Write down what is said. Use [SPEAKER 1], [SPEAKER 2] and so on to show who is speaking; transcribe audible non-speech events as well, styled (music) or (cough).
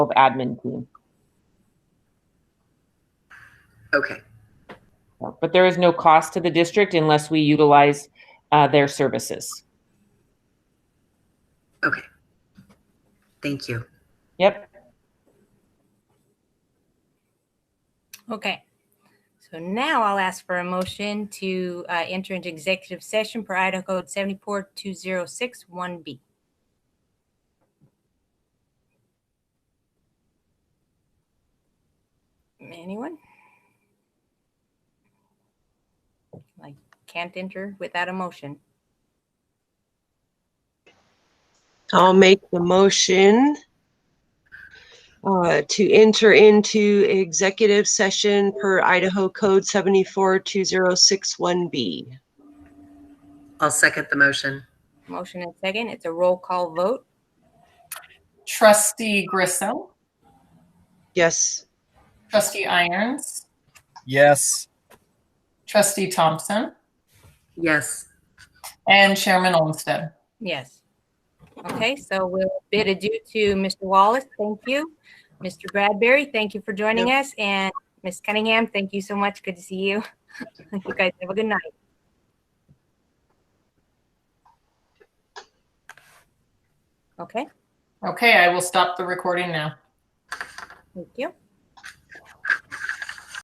[SPEAKER 1] of admin team.
[SPEAKER 2] Okay,
[SPEAKER 1] But there is no cost to the district unless we utilize uh, their services.
[SPEAKER 2] okay. Thank you.
[SPEAKER 1] Yep.
[SPEAKER 3] Okay. So now I'll ask for a motion to uh, enter into executive session per Idaho Code 742061B. Anyone? Like, can't enter without a motion.
[SPEAKER 4] I'll make the motion uh, to enter into executive session per Idaho Code 742061B.
[SPEAKER 2] I'll second the motion.
[SPEAKER 3] Motion and second. It's a roll call vote.
[SPEAKER 5] Trustee Grissom,
[SPEAKER 4] Yes.
[SPEAKER 5] Trustee Irons,
[SPEAKER 6] Yes.
[SPEAKER 5] Trustee Thompson,
[SPEAKER 2] Yes,
[SPEAKER 5] and Chairman Olmstead.
[SPEAKER 3] Yes. Okay, so we'll bid adieu to Mr. Wallace. Thank you. Mr. Bradbury, thank you for joining us. And Ms. Cunningham, thank you so much. Good to see you. (laughs) You guys have a good night. Okay,
[SPEAKER 5] Okay, I will stop the recording now.
[SPEAKER 3] thank you.